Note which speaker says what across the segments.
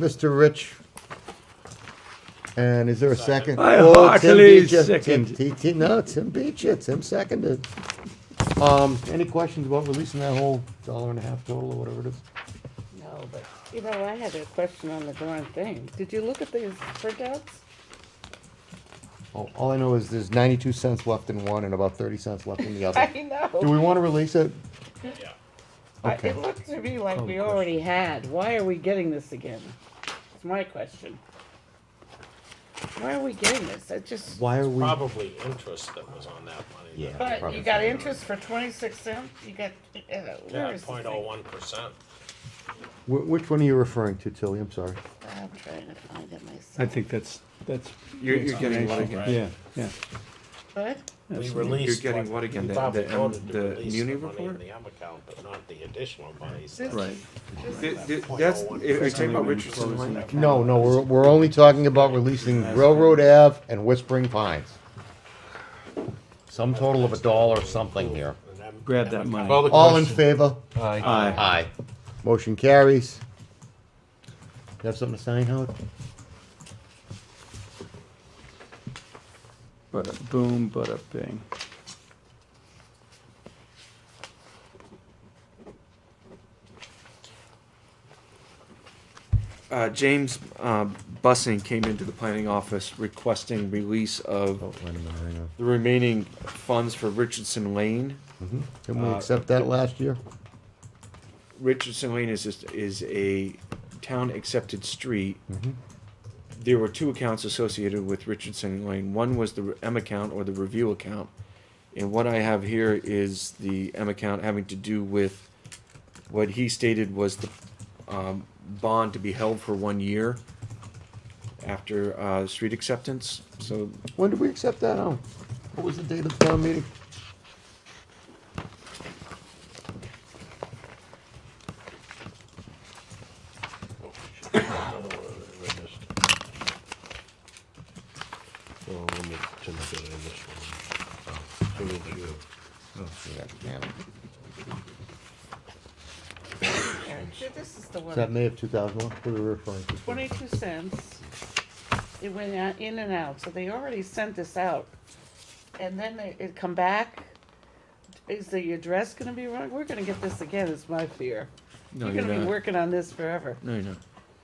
Speaker 1: Mr. Rich. And is there a second?
Speaker 2: I
Speaker 1: Oh, Tim
Speaker 2: heartily
Speaker 1: beat ya. Tim-
Speaker 2: second.
Speaker 1: T- T- No, Tim beat you, Tim seconded. Um, any questions about releasing that whole dollar and a half total or whatever it is?
Speaker 3: No, but, you know, I had a question on the darn thing. Did you look at these printouts?
Speaker 1: All, Oh, all I know is there's ninety-two cents left in one and about thirty cents left in the other.
Speaker 3: I
Speaker 1: Do we
Speaker 3: know.
Speaker 1: wanna release it?
Speaker 3: I-
Speaker 1: okay.
Speaker 3: It looked to me like
Speaker 2: Oh,
Speaker 3: we
Speaker 2: gosh.
Speaker 3: already had. Why are we getting this again? It's my question. Why are we getting this? I just,
Speaker 1: Why are we?
Speaker 4: Probably interest that was on that money.
Speaker 1: Yeah.
Speaker 3: but
Speaker 1: probably
Speaker 3: you got
Speaker 1: something.
Speaker 3: interest for twenty-six cents? You got, uh, where
Speaker 4: Yeah,
Speaker 3: is this
Speaker 4: point oh
Speaker 3: thing?
Speaker 4: one percent.
Speaker 1: Wh- Which one are you referring to, Tilly? I'm sorry.
Speaker 3: I'm trying to find it myself.
Speaker 2: I think that's, that's.
Speaker 5: You're, you're getting what again?
Speaker 2: Yeah, yeah.
Speaker 3: What?
Speaker 4: We
Speaker 2: Absolutely.
Speaker 4: released.
Speaker 5: getting what again,
Speaker 4: we
Speaker 5: the-
Speaker 4: probably
Speaker 5: the, um,
Speaker 4: voted to
Speaker 5: the
Speaker 4: release money
Speaker 5: muni
Speaker 4: in
Speaker 5: report?
Speaker 4: The M account, but not the additional monies.
Speaker 3: This-
Speaker 2: Right.
Speaker 5: Th- th- That's, if you're talking about Richardson Lane,
Speaker 1: No, no, we're, we're only talking about releasing Railroad Ave and Whispering Pines. Some total of a dollar something here.
Speaker 4: And then-
Speaker 2: Grab that money.
Speaker 1: All in favor?
Speaker 5: Aye.
Speaker 1: Aye. Motion carries. You have something to sign, Howard?
Speaker 2: Bada boom, bada bing.
Speaker 5: Uh, James, uh, Bussing came into the planning office requesting release
Speaker 1: Oh,
Speaker 5: of
Speaker 1: wait a minute, hang on.
Speaker 5: the remaining funds for Richardson Lane.
Speaker 1: Mm-hmm. Didn't we accept that last year?
Speaker 5: Richardson Lane is just, is a town accepted street. There were two accounts associated with Richardson Lane. One was the M account or the review account. And what I have here is the M account having to do with what he stated was the um, bond to be held for one year after uh, street acceptance. So
Speaker 1: When did we accept that, Howard? What was the date of the town meeting?
Speaker 4: Oh, let me, Tim, get in this one. Oh, so we'll do it.
Speaker 1: Yeah, damn it.
Speaker 3: Yeah, This is the one.
Speaker 1: Is that May of two thousand one? What are we referring to?
Speaker 3: twenty-two cents. It went out, in and out, so they already sent this out. And then they, it come back. Is the address gonna be wrong? We're gonna get this again, is my fear.
Speaker 5: no,
Speaker 3: You're
Speaker 5: you're
Speaker 3: gonna be
Speaker 5: not.
Speaker 3: working on this forever.
Speaker 5: No, you're not.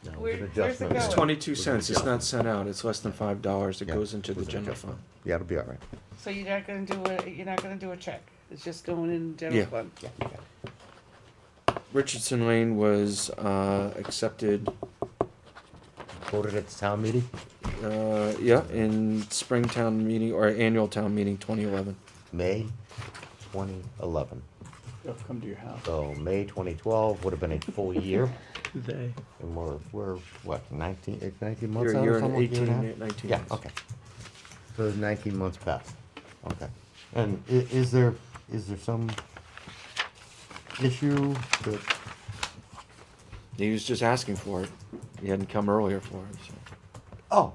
Speaker 1: No, it was an
Speaker 3: Where- where's it
Speaker 1: adjustment.
Speaker 3: going?
Speaker 5: It's twenty-two cents. It's not sent out. It's less than five dollars. It
Speaker 1: Yeah,
Speaker 5: goes into the
Speaker 1: was an
Speaker 5: general fund.
Speaker 1: adjustment. Yeah, it'll be all right.
Speaker 3: So you're not gonna do a, you're not gonna do a check. It's just going in general
Speaker 5: Yeah.
Speaker 3: fund.
Speaker 1: Yeah, yeah.
Speaker 5: Richardson Lane was uh, accepted,
Speaker 1: Voted at the town meeting?
Speaker 5: uh, yeah, in spring town meeting or annual town meeting 2011.
Speaker 1: May 2011.
Speaker 2: They'll come to your house.
Speaker 1: So May 2012 would have been a full year,
Speaker 2: They.
Speaker 1: and we're, we're, what, 19, eh, 19 months
Speaker 5: You're,
Speaker 1: out
Speaker 5: you're
Speaker 1: or
Speaker 5: in
Speaker 1: something? Year
Speaker 5: 18,
Speaker 1: and a half?
Speaker 5: 19.
Speaker 1: Yeah, okay. So it's 19 months past, okay. And i- is there, is there some issue that,
Speaker 5: He was just asking for it. He hadn't come earlier for it. So.
Speaker 1: oh.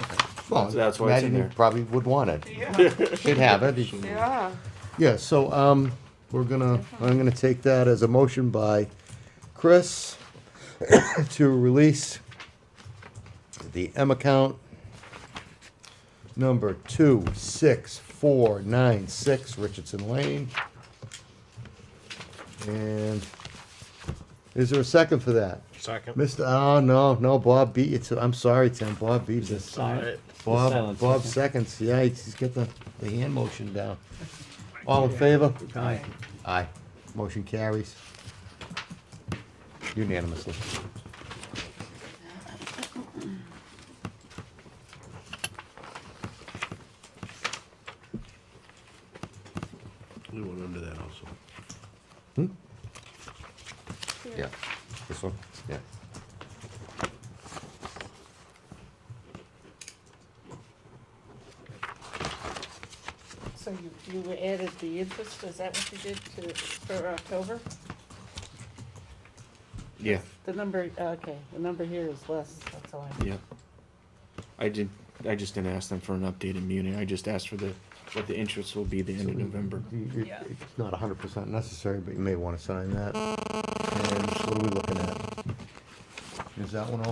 Speaker 1: okay. Well,
Speaker 5: That's why it's in
Speaker 1: Maddie
Speaker 5: there.
Speaker 1: Probably would want it,
Speaker 3: Yeah,
Speaker 1: should have it.
Speaker 3: yeah.
Speaker 1: Yeah, so, um, we're gonna, I'm gonna take that as a motion by Chris to release the M account number two, six, four, nine, six, Richardson Lane. And is there a second for that?
Speaker 4: Second.
Speaker 1: Mr., oh, no, no, Bob beat you to, I'm sorry, Tim, Bob beat you.
Speaker 4: All right.
Speaker 1: Bob,
Speaker 2: Silence,
Speaker 1: Bob
Speaker 2: okay.
Speaker 1: seconds, yeah, he's he's got the, the hand motion down. All in favor?
Speaker 2: Aye.
Speaker 1: Aye. Motion carries. Unanimously.
Speaker 4: We went under that also.
Speaker 1: Yeah. This one? Yeah.
Speaker 3: So you, you added the interest, is that what you did to, for October?
Speaker 5: Yeah,
Speaker 3: The number, okay, the number here is less, that's all I.
Speaker 5: yeah. I did. I just didn't ask them for an updated muni. I just asked for the what the interest will be the end of November.
Speaker 1: You- you-
Speaker 3: Yeah.
Speaker 1: It's not hundred percent necessary, but you may wanna sign that. And what are we looking at? Is that one